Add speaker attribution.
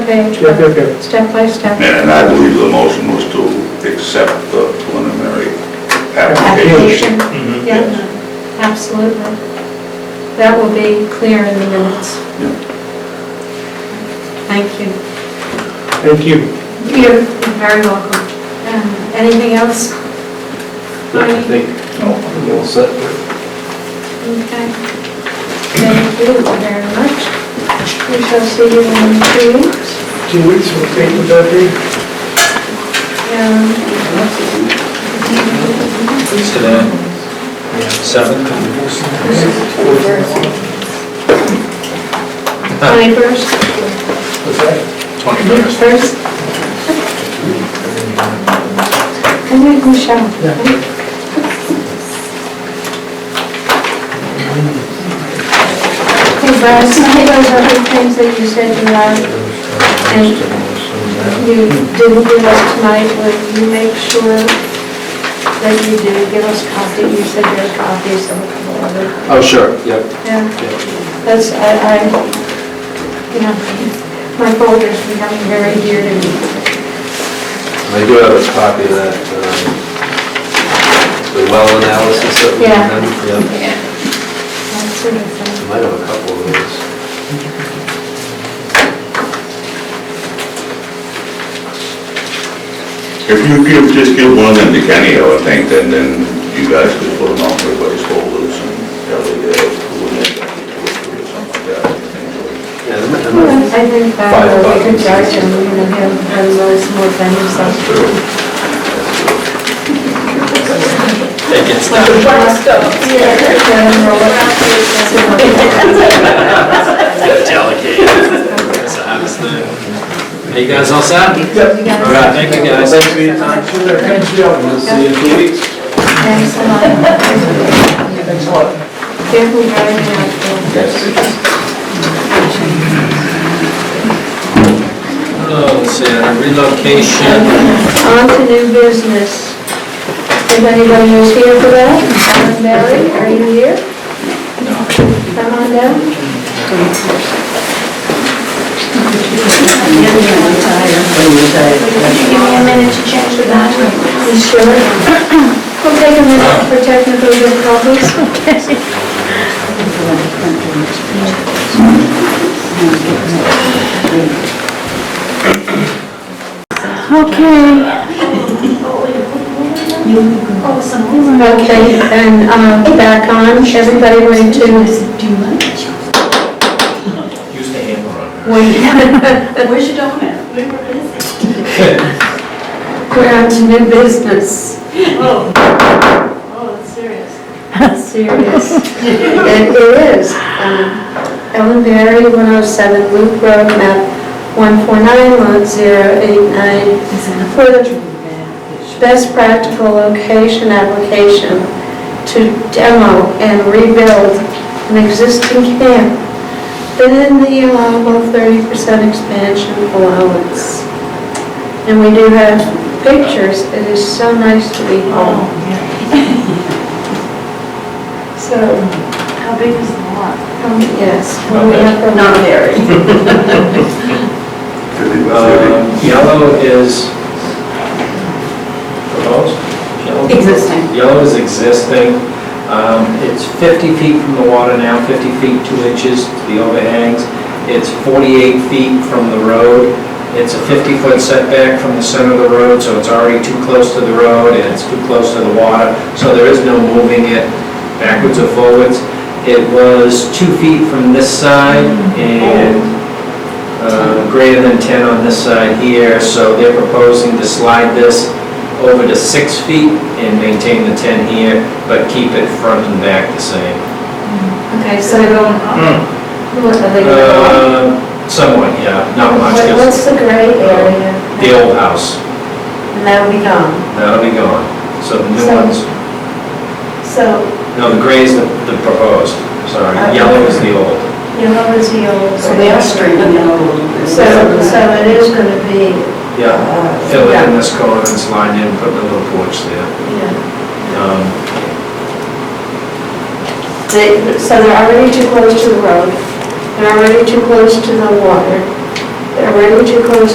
Speaker 1: page,
Speaker 2: Yep, yep, yep.
Speaker 1: step by step.
Speaker 3: And I believe the motion was to accept the preliminary
Speaker 1: Application,
Speaker 3: application.
Speaker 4: Mm-hmm.
Speaker 1: yeah, absolutely. That will be clear in the minutes.
Speaker 3: Yeah.
Speaker 1: Thank you.
Speaker 2: Thank you.
Speaker 1: You're very welcome. Um, Anything else?
Speaker 4: I think, we're all set.
Speaker 1: Okay. Thank you very much. We shall see you in two weeks.
Speaker 2: Two weeks, we'll take with that date.
Speaker 1: Um,
Speaker 4: It's today, seventh.
Speaker 1: Twenty-first,
Speaker 4: Twenty-first.
Speaker 1: twenty-first. Come here, Michelle. Hey, Brad, some of those other things that you said you had, and you didn't give us tonight, would you make sure that you do give us copy? You said there are copies of a couple other,
Speaker 4: Oh, sure, yep.
Speaker 1: yeah. That's, I, I, you know, my folder's becoming very dear to me.
Speaker 4: I do have a copy of that, um, the well analysis that we
Speaker 1: Yeah.
Speaker 4: done. Yep.
Speaker 1: That sort of thing.
Speaker 4: I might have a couple of those.
Speaker 3: If you give, just give one of them to Kenny, I would think, then, then you guys could put them on everybody's folders and tell the, uh, who it is, or something like that.
Speaker 4: Yeah, there might- there
Speaker 1: Well, I
Speaker 4: might-
Speaker 1: think that
Speaker 4: Five
Speaker 1: uh, we could
Speaker 4: buttons.
Speaker 1: charge him, you know, him, and those more than himself.
Speaker 4: It gets
Speaker 1: Like
Speaker 4: done.
Speaker 1: a bus uh, Yeah, and roll it up.
Speaker 4: Delegate. That's a house thing. Are you guys all set?
Speaker 1: Yeah.
Speaker 4: All right, thank you, guys.
Speaker 2: Thanks for your time. Thank you.
Speaker 4: We'll see you in two weeks.
Speaker 1: Thanks a lot.
Speaker 2: Thanks a lot.
Speaker 1: Careful driving out there. Mm-hmm.
Speaker 4: Oh, let's see, uh, relocation.
Speaker 1: On to new business. If anybody is here for that, Alan Barry, are you here? Come on down.
Speaker 5: Could you give me a minute to change the bathroom?
Speaker 1: You sure? We'll take a minute for technical difficulties.
Speaker 5: Oh, someone.
Speaker 1: Okay, and um, back on, everybody went to,
Speaker 5: Do you like it? Where's your donut?
Speaker 1: we're on to new business.
Speaker 5: Oh, oh, that's serious.
Speaker 1: Serious. It is. Um, Ellen Berry, 107 Loop Road, map 149, lot 089, for the best practical location application to demo and rebuild an existing camp within the allowable 30% expansion allowance. And we do have pictures. It is so nice to be home. So,
Speaker 5: How big is the lot?
Speaker 1: um, yes, when we have the... Not very.
Speaker 3: Thirty-
Speaker 4: Uh, Yellow is proposed? Yellow-
Speaker 5: Existing.
Speaker 4: Yellow is existing. Um, It's 50 feet from the water now, 50 feet, 2 inches to the overhangs. It's 48 feet from the road. It's a 50-foot setback from the center of the road, so it's already too close to the road and it's too close to the water, so there is no moving it backwards or forwards. It was 2 feet from this side and uh, greater than 10 on this side here, so they're proposing to slide this over to 6 feet and maintain the 10 here, but keep it front and back the same.
Speaker 1: Okay, so, what are they...
Speaker 4: Hmm. Uh, Somewhat, yeah, not much,
Speaker 1: What-
Speaker 4: 'cause
Speaker 1: What's the gray area?
Speaker 4: the old house,
Speaker 1: And that'll be gone.
Speaker 4: that'll be gone. So the new
Speaker 1: So-
Speaker 4: ones,
Speaker 1: So
Speaker 4: no, the gray is the the proposed, sorry,
Speaker 1: Okay.
Speaker 4: yellow is the old.
Speaker 1: yellow is the old.
Speaker 5: So they are straightening out a little bit.
Speaker 1: So, so it is gonna be,
Speaker 4: Yeah,
Speaker 1: Oh,
Speaker 4: fill it in this corner and slide in, put the little porch there.
Speaker 1: yeah.
Speaker 4: Um,
Speaker 1: They- So they're already too close to the road, they're already too close to the water. They're way too close